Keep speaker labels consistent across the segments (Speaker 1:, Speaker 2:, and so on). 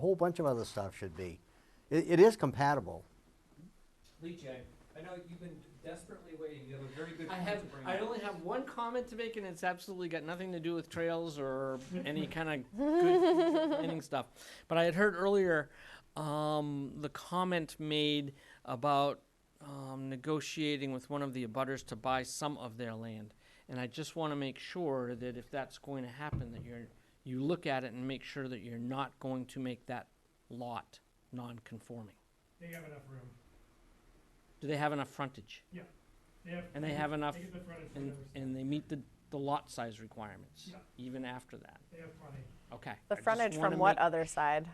Speaker 1: a whole bunch of other stuff should be. It, it is compatible.
Speaker 2: Lee J, I know you've been desperately waiting, you have a very good
Speaker 3: I
Speaker 2: point
Speaker 3: have,
Speaker 2: to bring
Speaker 3: I
Speaker 2: up.
Speaker 3: only have one comment to make, and it's absolutely got nothing to do with trails or any kind of good planning stuff. But I had heard earlier, um, the comment made about, um, negotiating with one of the abutters to buy some of their land. And I just wanna make sure that if that's going to happen, that you're, you look at it and make sure that you're not going to make that lot non-conforming.
Speaker 4: They have enough room.
Speaker 3: Do they have enough frontage?
Speaker 4: They have.
Speaker 3: And they have enough
Speaker 4: They get the frontage for
Speaker 3: And,
Speaker 4: their
Speaker 3: and they meet the, the lot size requirements,
Speaker 4: Yeah.
Speaker 3: even after that,
Speaker 4: They have plenty.
Speaker 3: okay. I
Speaker 5: The
Speaker 3: just
Speaker 5: frontage
Speaker 3: wanna
Speaker 5: from what
Speaker 3: make-
Speaker 5: other side?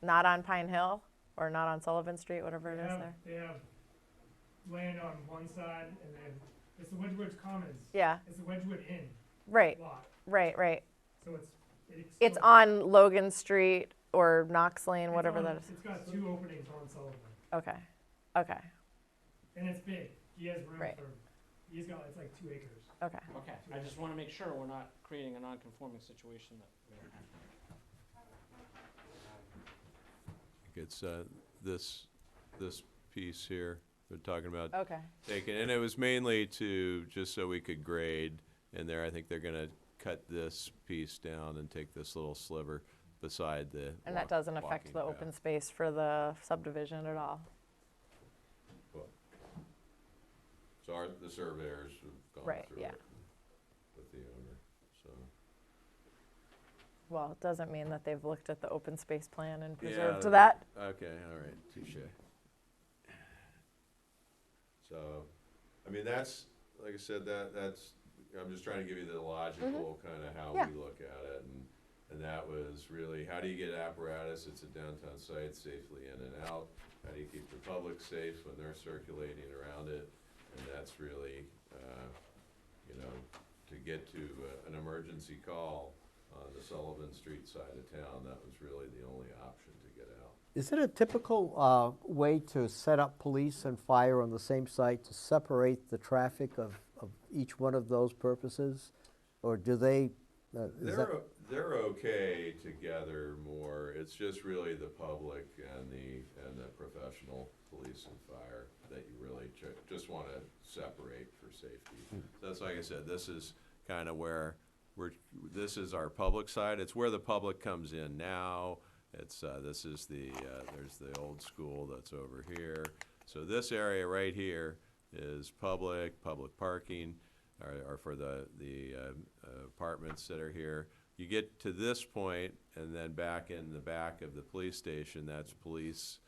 Speaker 5: Not on Pine Hill or not on Sullivan Street, whatever
Speaker 4: They
Speaker 5: it is
Speaker 4: have,
Speaker 5: there?
Speaker 4: they have land on one side and then, it's the Wedgewood Commons.
Speaker 5: Yeah,
Speaker 4: It's the Wedgewood Inn
Speaker 5: right,
Speaker 4: lot,
Speaker 5: right, right.
Speaker 4: so it's. it
Speaker 5: It's
Speaker 4: extends-
Speaker 5: on Logan Street or Knox Lane,
Speaker 4: it's
Speaker 5: whatever
Speaker 4: on-
Speaker 5: that is.
Speaker 4: It's got two openings on Sullivan,
Speaker 5: Okay, okay,
Speaker 4: and it's big. He has room
Speaker 5: Right.
Speaker 4: for, he's got, it's like two acres.
Speaker 5: okay.
Speaker 3: Okay, I just wanna make sure we're not creating a non-conforming situation that we don't have.
Speaker 6: It's uh, this, this piece here, they're talking about
Speaker 5: Okay.
Speaker 6: taking, and it was mainly to, just so we could grade in there. I think they're gonna cut this piece down and take this little sliver beside the.
Speaker 5: And that
Speaker 6: walk-
Speaker 5: doesn't affect
Speaker 6: walking
Speaker 5: the
Speaker 6: path.
Speaker 5: open space for the subdivision at all?
Speaker 6: So our, the surveyors have gone
Speaker 5: Right,
Speaker 6: through
Speaker 5: yeah.
Speaker 6: it with the owner, so.
Speaker 5: Well, it doesn't mean that they've looked at the open space plan and
Speaker 6: Yeah,
Speaker 5: preserved
Speaker 6: that'd
Speaker 5: that.
Speaker 6: be- Okay, all right, touche. So, I mean, that's, like I said, that, that's, I'm just trying to give you the logical kind of how
Speaker 5: Yeah.
Speaker 6: we look at it. And, and that was really, how do you get apparatus, it's a downtown site, safely in and out? How do you keep the public safe when they're circulating around it? And that's really, uh, you know, to get to uh, an emergency call on the Sullivan Street side of town, that was really the only option to get out.
Speaker 1: Is it a typical uh, way to set up police and fire on the same site to separate the traffic of, of each one of those purposes? Or do they, uh, is that,
Speaker 6: They're, o- they're okay together more, it's just really the public and the, and the professional police and fire that you really ju- just wanna separate for
Speaker 1: Hmm.
Speaker 6: safety. That's like I said, this is kinda where, we're, this is our public side, it's where the public comes in now. It's, uh, this is the, uh, there's the old school that's over here. So this area right here is public, public parking, or, or for the, the um, uh, apartments that are here. You get to this point, and then back in the back of the police station, that's police,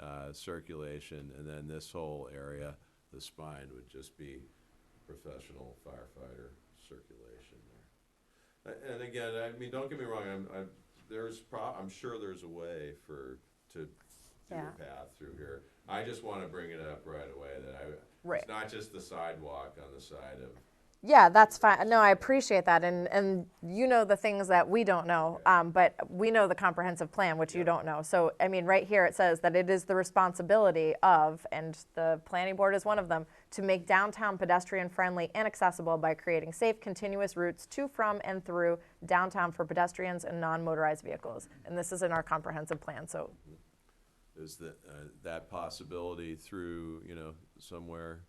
Speaker 6: uh, circulation, and then this whole area, the spine would just be professional firefighter circulation there. A- And again, I mean, don't get me wrong, I'm, I'm, there's pro, I'm sure there's a way for, to do
Speaker 5: Yeah.
Speaker 6: a path through here. I just wanna bring it up right away that I,
Speaker 5: Right.
Speaker 6: it's not just the sidewalk on the side of
Speaker 5: Yeah, that's fine. No, I appreciate that, and and you know the things that we don't know, um, but we know the comprehensive plan, which you don't know. So I mean, right here it says that it is the responsibility of, and the planning board is one of them, to make downtown pedestrian friendly and accessible by creating safe, continuous routes to, from, and through downtown for pedestrians and non-motorized vehicles. And this is in our comprehensive plan. So
Speaker 6: is that, uh, that possibility through, you know, somewhere,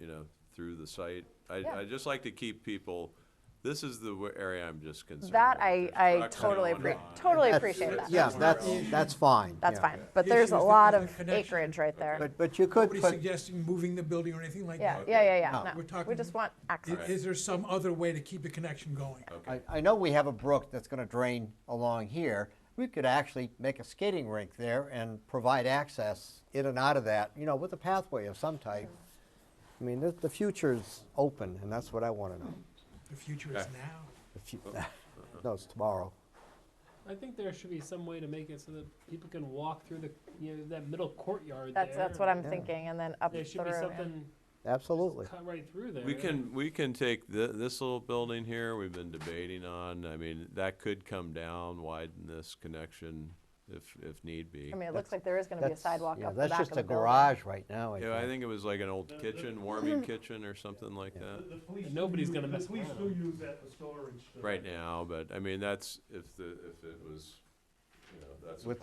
Speaker 6: you know, through the site? I,
Speaker 5: Yeah.
Speaker 6: I just like to keep people, this is the wa- area I'm just concerned with.
Speaker 5: that I,
Speaker 6: There's
Speaker 5: I
Speaker 6: trucks
Speaker 5: totally
Speaker 6: going
Speaker 5: appre-
Speaker 6: on.
Speaker 5: totally
Speaker 1: That's-
Speaker 5: appreciate that.
Speaker 1: yeah, that's, that's fine.
Speaker 5: That's
Speaker 1: yeah.
Speaker 5: fine. But
Speaker 7: The
Speaker 5: there's
Speaker 7: issue
Speaker 5: a
Speaker 7: is that
Speaker 5: lot
Speaker 7: there's a
Speaker 5: of
Speaker 7: connection.
Speaker 5: acreage right there.
Speaker 1: But, but you could
Speaker 7: Nobody's
Speaker 1: put,
Speaker 7: suggesting moving the building or anything like
Speaker 5: Yeah,
Speaker 7: that.
Speaker 5: yeah, yeah, yeah.
Speaker 1: No.
Speaker 5: No,
Speaker 7: We're talking-
Speaker 5: We just want
Speaker 7: I-
Speaker 5: access.
Speaker 7: Is there some other way to keep the connection going?
Speaker 6: Okay,
Speaker 1: I, I know we have a brook that's gonna drain along here. We could actually make a skating rink there and provide access in and out of that, you know, with a pathway of some type. I mean, the, the future's open, and that's what I wanna know.
Speaker 7: The future is
Speaker 6: Okay.
Speaker 7: now.
Speaker 1: The fu- No, it's tomorrow.
Speaker 8: I think there should be some way to make it so that people can walk through the, you know, that middle courtyard there.
Speaker 5: That's, that's what I'm
Speaker 1: Yeah.
Speaker 5: thinking, and then up through.
Speaker 8: There should be
Speaker 5: yeah.
Speaker 8: something
Speaker 1: Absolutely.
Speaker 8: cut right through there.
Speaker 6: we can, we can take thi- this little building here, we've been debating on, I mean, that could come down, widen this connection if, if need be.
Speaker 5: I mean, it looks like there is gonna be a
Speaker 1: That's-
Speaker 5: sidewalk
Speaker 1: yeah,
Speaker 5: up the back of
Speaker 1: That's
Speaker 5: the
Speaker 1: just a
Speaker 5: building.
Speaker 1: garage right now, I
Speaker 6: Yeah, I
Speaker 1: think.
Speaker 6: think it was like an old
Speaker 4: The- the-
Speaker 6: kitchen, warming kitchen or something like that.
Speaker 4: The police.
Speaker 8: And nobody's gonna mess
Speaker 4: The police
Speaker 8: around.
Speaker 4: do use that for storage. so-
Speaker 6: right now, but I mean, that's, if the, if it was, you know,
Speaker 9: that's a
Speaker 6: with